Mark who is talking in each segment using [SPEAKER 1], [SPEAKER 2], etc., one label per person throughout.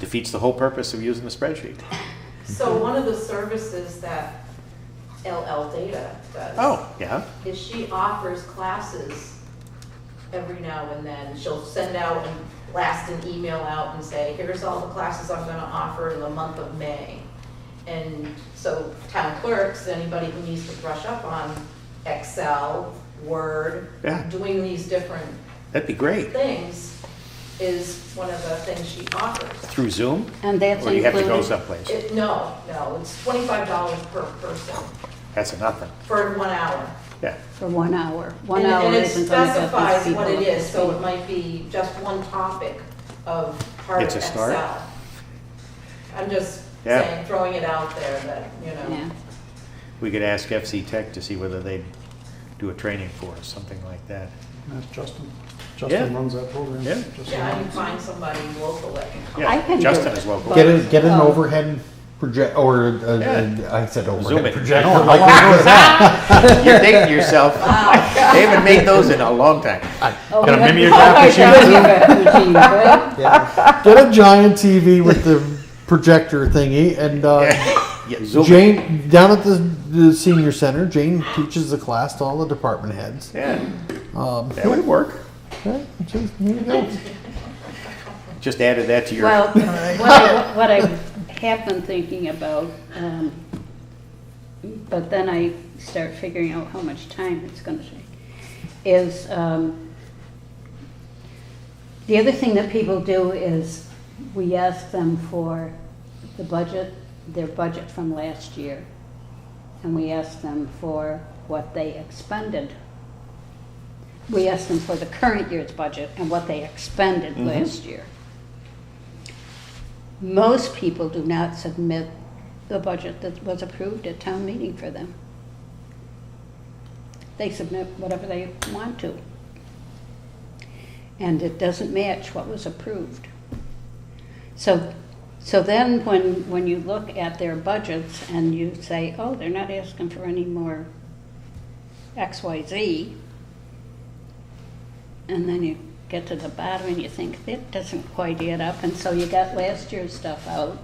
[SPEAKER 1] defeats the whole purpose of using the spreadsheet.
[SPEAKER 2] So one of the services that LL Data does.
[SPEAKER 1] Oh, yeah,
[SPEAKER 2] Is she offers classes every now and then. She'll send out and blast an email out and say, here's all the classes I'm gonna offer in the month of May. And so town clerks, anybody who needs to brush up on Excel, Word,
[SPEAKER 1] Yeah.
[SPEAKER 2] doing these different
[SPEAKER 1] that'd be great.
[SPEAKER 2] things is one of the things she offers.
[SPEAKER 1] Through Zoom?
[SPEAKER 3] And that's
[SPEAKER 1] Or you have to go
[SPEAKER 3] included,
[SPEAKER 1] someplace?
[SPEAKER 2] It, no, no, it's twenty-five dollars per person
[SPEAKER 1] That's nothing,
[SPEAKER 2] for one hour.
[SPEAKER 1] yeah.
[SPEAKER 3] for one hour. One
[SPEAKER 2] And-
[SPEAKER 3] hour isn't gonna get these people.
[SPEAKER 2] And it specifies what it
[SPEAKER 3] up to
[SPEAKER 2] is, so it
[SPEAKER 3] speed.
[SPEAKER 2] might be just one topic of part of
[SPEAKER 1] It's a start.
[SPEAKER 2] Excel. I'm just
[SPEAKER 1] Yeah.
[SPEAKER 2] saying, throwing it out there that, you know,
[SPEAKER 3] Yeah.
[SPEAKER 1] We could ask FC Tech to see whether they'd do a training for us, something like that.
[SPEAKER 4] That's Justin. Justin runs that program.
[SPEAKER 1] Yeah.
[SPEAKER 4] Justin
[SPEAKER 2] yeah, you
[SPEAKER 4] runs it.
[SPEAKER 2] find somebody locally.
[SPEAKER 1] Yeah,
[SPEAKER 3] I can do
[SPEAKER 1] Justin
[SPEAKER 3] it,
[SPEAKER 1] is local.
[SPEAKER 3] but-
[SPEAKER 5] Get a, get an
[SPEAKER 3] Oh.
[SPEAKER 5] overhead project or a, a-
[SPEAKER 1] Yeah.
[SPEAKER 5] I said
[SPEAKER 1] Zoom
[SPEAKER 5] overhead
[SPEAKER 1] it.
[SPEAKER 5] projector. like we do now.
[SPEAKER 1] You're dating yourself. They haven't made those in a long time.
[SPEAKER 3] Oh,
[SPEAKER 4] Got a
[SPEAKER 3] we have-
[SPEAKER 4] mimeograph
[SPEAKER 3] Oh,
[SPEAKER 4] machine,
[SPEAKER 3] I
[SPEAKER 4] too?
[SPEAKER 3] got a machine, right?
[SPEAKER 5] Yeah. Get a giant TV with the projector thingy, and uh,
[SPEAKER 1] Yeah, Zoom. it.
[SPEAKER 5] Jane down at the, the senior center. Jane teaches the class to all the department heads.
[SPEAKER 1] Yeah,
[SPEAKER 5] Um,
[SPEAKER 1] that would work.
[SPEAKER 5] yeah, just, here you go.
[SPEAKER 1] Just added that to your.
[SPEAKER 3] Well, what I, what I have been thinking about, um, but then I start figuring out how much time it's gonna take, is, um, the other thing that people do is we ask them for the budget, their budget from last year. And we ask them for what they expended. We ask them for the current year's budget and what they expended last year. Most people do not submit the budget that was approved at town meeting for them. They submit whatever they want to. And it doesn't match what was approved. So, so then when, when you look at their budgets and you say, oh, they're not asking for any more X, Y, Z, and then you get to the bottom and you think, that doesn't quite add up, and so you got last year's stuff out.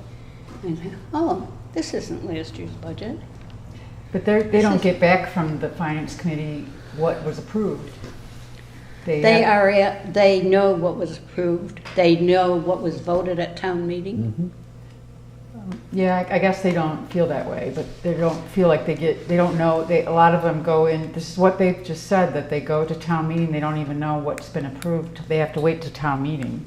[SPEAKER 3] And you think, oh, this isn't last year's budget.
[SPEAKER 6] But they're, they don't get back from the finance committee what was approved.
[SPEAKER 3] They are, at- they know what was approved, they know what was voted at town meeting.
[SPEAKER 6] Yeah, I- I guess they don't feel that way, but they don't feel like they get, they don't know, they, a lot of them go in, this is what they've just said, that they go to town meeting, they don't even know what's been approved, they have to wait to town meeting.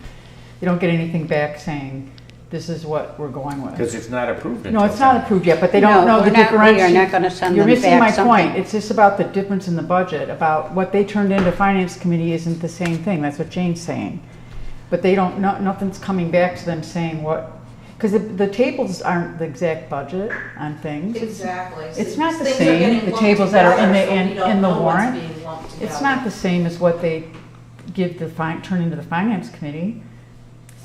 [SPEAKER 6] They don't get anything back saying, this is what we're going with.
[SPEAKER 1] Because it's not approved until.
[SPEAKER 6] No, it's not
[SPEAKER 1] then.
[SPEAKER 6] approved yet, but they don't
[SPEAKER 3] No,
[SPEAKER 6] know the
[SPEAKER 3] we're not- we are
[SPEAKER 6] differentiation.
[SPEAKER 3] not gonna send them
[SPEAKER 6] You're missing
[SPEAKER 3] back
[SPEAKER 6] my
[SPEAKER 3] something.
[SPEAKER 6] point. It's just about the difference in the budget, about what they turned into finance committee isn't the same thing. That's what Jane's saying. But they don't, no, nothing's coming back to them saying what, because the, the tables aren't the exact budget on things.
[SPEAKER 2] Exactly. So
[SPEAKER 6] It's not the
[SPEAKER 2] things are
[SPEAKER 6] same,
[SPEAKER 2] getting
[SPEAKER 6] the
[SPEAKER 2] lumped
[SPEAKER 6] tables that are in the-
[SPEAKER 2] together, so
[SPEAKER 6] in-
[SPEAKER 2] we don't
[SPEAKER 6] in the
[SPEAKER 2] know what's
[SPEAKER 6] warrant.
[SPEAKER 2] being lumped
[SPEAKER 6] It's
[SPEAKER 2] together.
[SPEAKER 6] not the same as what they give the fin, turn into the finance committee.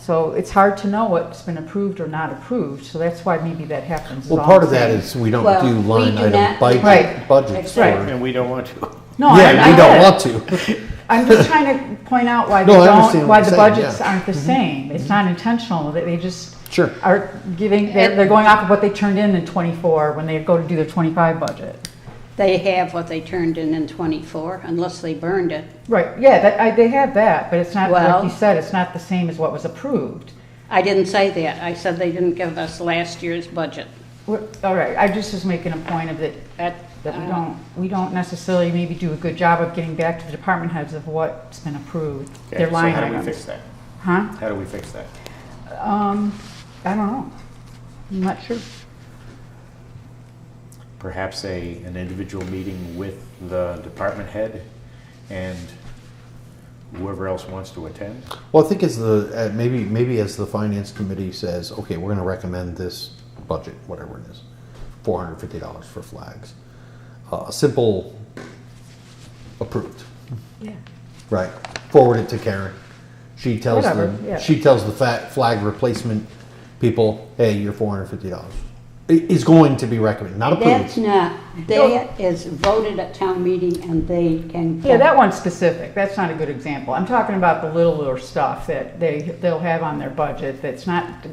[SPEAKER 6] So it's hard to know what's been approved or not approved, so that's why maybe that happens. is
[SPEAKER 5] Well,
[SPEAKER 6] all
[SPEAKER 5] part
[SPEAKER 6] I'm
[SPEAKER 5] of that
[SPEAKER 6] saying.
[SPEAKER 5] is we don't
[SPEAKER 3] Well,
[SPEAKER 5] do
[SPEAKER 3] we
[SPEAKER 5] line
[SPEAKER 3] do
[SPEAKER 5] item
[SPEAKER 3] not-
[SPEAKER 5] budget,
[SPEAKER 6] Right.
[SPEAKER 5] budgets.
[SPEAKER 3] Right.
[SPEAKER 5] for-
[SPEAKER 1] And we don't want to.
[SPEAKER 6] No, I,
[SPEAKER 5] Yeah,
[SPEAKER 6] I
[SPEAKER 5] we
[SPEAKER 6] get
[SPEAKER 5] don't
[SPEAKER 6] it.
[SPEAKER 5] want to.
[SPEAKER 6] I'm just trying to point out why they
[SPEAKER 5] No, I understand
[SPEAKER 6] don't, why
[SPEAKER 5] what
[SPEAKER 6] the
[SPEAKER 5] you're saying,
[SPEAKER 6] budgets
[SPEAKER 5] yeah. Mm-hmm.
[SPEAKER 6] aren't the same. It's not intentional, that they just
[SPEAKER 5] Sure.
[SPEAKER 6] are giving, they're, they're going off of what they turned in in twenty-four when they go to do their twenty-five budget.
[SPEAKER 3] They have what they turned in in twenty-four, unless they burned it.
[SPEAKER 6] Right, yeah, that, I, they have that, but it's not, like
[SPEAKER 3] Well-
[SPEAKER 6] you said, it's not the same as what was approved.
[SPEAKER 3] I didn't say that, I said they didn't give us last year's budget.
[SPEAKER 6] We're- All right, I just was making a point of that,
[SPEAKER 3] That,
[SPEAKER 6] that we
[SPEAKER 3] uh,
[SPEAKER 6] don't, we don't necessarily maybe do a good job of getting back to the department heads of what's been approved,
[SPEAKER 1] Okay,
[SPEAKER 6] their line
[SPEAKER 1] So how do we fix
[SPEAKER 6] items.
[SPEAKER 1] that?
[SPEAKER 6] Huh?
[SPEAKER 1] How do we fix that?
[SPEAKER 6] Um, I don't know. I'm not sure.
[SPEAKER 1] Perhaps a, an individual meeting with the department head and whoever else wants to attend?
[SPEAKER 5] Well, I think as the uh, maybe maybe as the finance committee says, okay, we're going to recommend this budget, whatever it is, four hundred fifty dollars for flags. Uh, a simple approved,
[SPEAKER 6] Yeah.
[SPEAKER 5] right? Forward it to Karen. She tells
[SPEAKER 6] Whatever,
[SPEAKER 5] the
[SPEAKER 6] yeah.
[SPEAKER 5] she tells the fat flag replacement people, hey, your four hundred fifty dollars is going to be recommended, not
[SPEAKER 3] That's
[SPEAKER 5] approved.
[SPEAKER 3] not, that is voted at town meeting and they can.
[SPEAKER 6] Yeah, that one's specific. That's not a good example. I'm talking about the littler stuff that they, they'll have on their budget that's not